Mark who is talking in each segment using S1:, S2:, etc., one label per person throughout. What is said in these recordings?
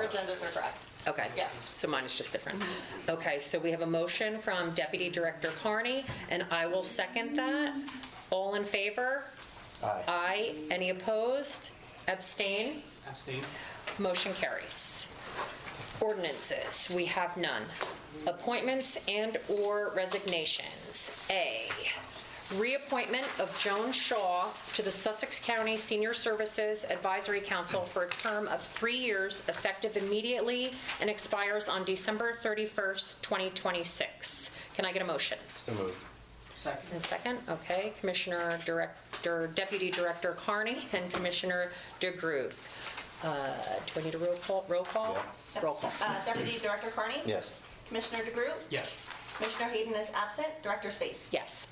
S1: Your agendas are correct.
S2: Okay.
S1: Yeah.
S2: So mine is just different. Okay, so we have a motion from Deputy Director Carney, and I will second that. All in favor?
S3: Aye.
S2: Aye. Any opposed? Abstain?
S4: Abstain.
S2: Motion carries. Ordinances, we have none. Appointments and/or resignations. A, reappointment of Joan Shaw to the Sussex County Senior Services Advisory Council for a term of three years effective immediately and expires on December 31st, 2026. Can I get a motion?
S3: So moved.
S4: Second.
S2: And second, okay, Commissioner Director, Deputy Director Carney and Commissioner DeGroot. Uh, Do I need a roll call? Roll call?
S3: Yeah.
S2: Roll call.
S1: Uh, Deputy Director Carney?
S3: Yes.
S1: Commissioner DeGroot?
S4: Yes.
S1: Commissioner Hayden is absent. Director Space?
S2: Yes.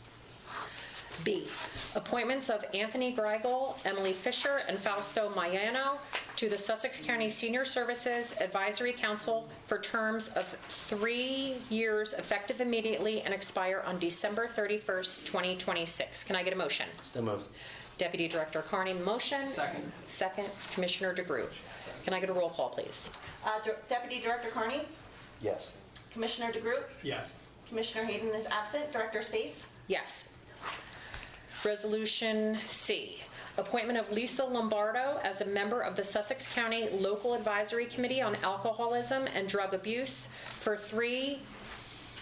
S2: B, appointments of Anthony Greigel, Emily Fisher, and Fausto Maiano to the Sussex County Senior Services Advisory Council for terms of three years effective immediately and expire on December 31st, 2026. Can I get a motion?
S3: So moved.
S2: Deputy Director Carney, motion.
S4: Second.
S2: Second, Commissioner DeGroot. Can I get a roll call, please?
S1: Uh, Dir- Deputy Director Carney?
S3: Yes.
S1: Commissioner DeGroot?
S4: Yes.
S1: Commissioner Hayden is absent. Director Space?
S2: Yes. Resolution C, appointment of Lisa Lombardo as a member of the Sussex County Local Advisory Committee on Alcoholism and Drug Abuse for three,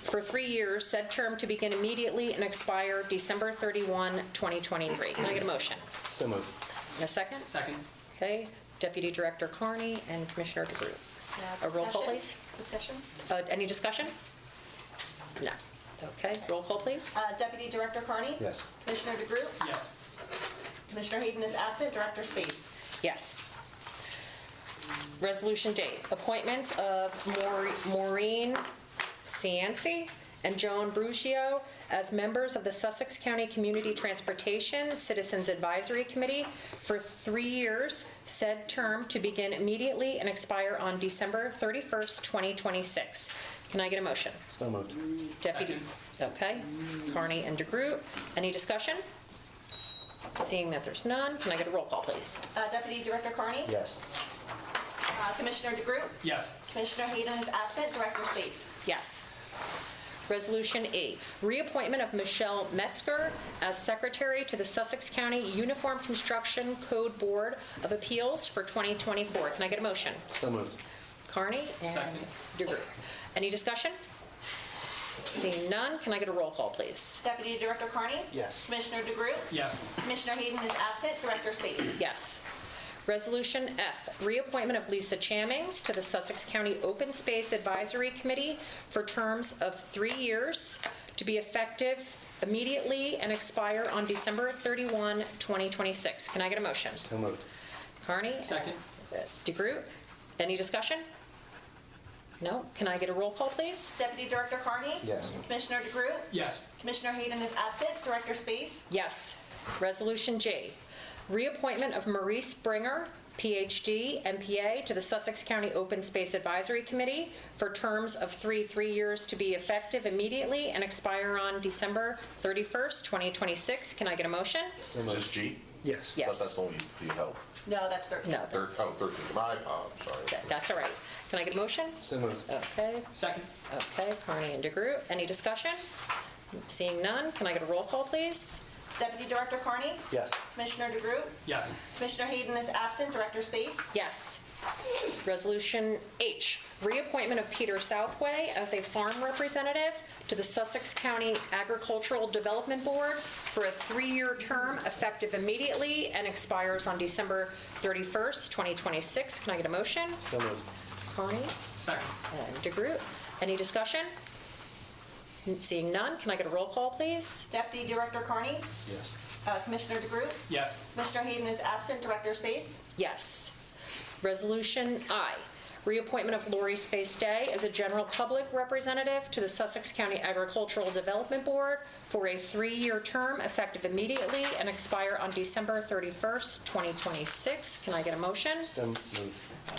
S2: for three years, said term to begin immediately and expire December 31, 2023. Can I get a motion?
S3: So moved.
S2: And a second?
S4: Second.
S2: Okay, Deputy Director Carney and Commissioner DeGroot.
S1: Uh,
S2: A roll call,
S1: discussion?
S2: please.
S1: Discussion?
S2: Uh, Any discussion? No. Okay, roll call, please.
S1: Uh, Deputy Director Carney?
S3: Yes.
S1: Commissioner DeGroot?
S4: Yes.
S1: Commissioner Hayden is absent. Director Space?
S2: Yes. Resolution date, appointments of Maure- Maureen Cianci and Joan Brugio as members of the Sussex County Community Transportation Citizens Advisory Committee for three years, said term to begin immediately and expire on December 31st, 2026. Can I get a motion?
S3: So moved.
S2: Deputy, okay, Carney and DeGroot. Any discussion? Seeing that there's none, can I get a roll call, please?
S1: Uh, Deputy Director Carney?
S3: Yes.
S1: Uh, Commissioner DeGroot?
S4: Yes.
S1: Commissioner Hayden is absent. Director Space?
S2: Yes. Resolution E, reappointment of Michelle Metzger as secretary to the Sussex County Uniform Construction Code Board of Appeals for 2024. Can I get a motion?
S3: So moved.
S2: Carney and
S4: Second.
S2: DeGroot. Any discussion? Seeing none, can I get a roll call, please?
S1: Deputy Director Carney?
S3: Yes.
S1: Commissioner DeGroot?
S4: Yes.
S1: Commissioner Hayden is absent. Director Space?
S2: Yes. Resolution F, reappointment of Lisa Chamings to the Sussex County Open Space Advisory Committee for terms of three years, to be effective immediately and expire on December 31, 2026. Can I get a motion?
S3: So moved.
S2: Carney?
S4: Second.
S2: DeGroot? Any discussion? No? Can I get a roll call, please?
S1: Deputy Director Carney?
S3: Yes.
S1: Commissioner DeGroot?
S4: Yes.
S1: Commissioner Hayden is absent. Director Space?
S2: Yes. Resolution G, reappointment of Maurice Bringer, Ph.D., MPA, to the Sussex County Open Space Advisory Committee for terms of three, three years to be effective immediately and expire on December 31st, 2026. Can I get a motion?
S3: So
S5: Is
S3: moved.
S5: this G?
S3: Yes.
S5: I thought
S2: Yes.
S5: that's only the help.
S1: No, that's 13.
S2: No,
S5: Third, oh, third, my, oh, I'm sorry.
S2: that- that's all right. Can I get a motion?
S3: So moved.
S2: Okay,
S4: Second.
S2: okay, Carney and DeGroot. Any discussion? Seeing none, can I get a roll call, please?
S1: Deputy Director Carney?
S3: Yes.
S1: Commissioner DeGroot?
S4: Yes.
S1: Commissioner Hayden is absent. Director Space?
S2: Yes. Resolution H, reappointment of Peter Southway as a farm representative to the Sussex County Agricultural Development Board for a three-year term effective immediately and expires on December 31st, 2026. Can I get a motion?
S3: So moved.
S2: Carney
S4: Second.
S2: and DeGroot. Any discussion? Seeing none, can I get a roll call, please?
S1: Deputy Director Carney?
S3: Yes.
S1: Uh, Commissioner DeGroot?
S4: Yes.
S1: Commissioner Hayden is absent. Director Space?
S2: Yes. Resolution I, reappointment of Lori Space Day as a general public representative to the Sussex County Agricultural Development Board for a three-year term effective immediately and expire on December 31st, 2026. Can I get a motion?
S3: So moved.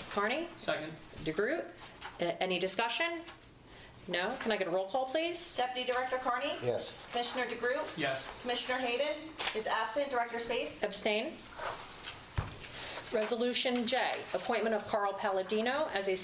S2: Carney?
S4: Second.
S2: DeGroot? A- Any discussion? No? Can I get a roll call, please?
S1: Deputy Director Carney?
S3: Yes.
S1: Commissioner DeGroot?
S4: Yes.
S1: Commissioner Hayden is absent. Director Space?
S2: Abstain? Resolution J, appointment of Carl Palladino as a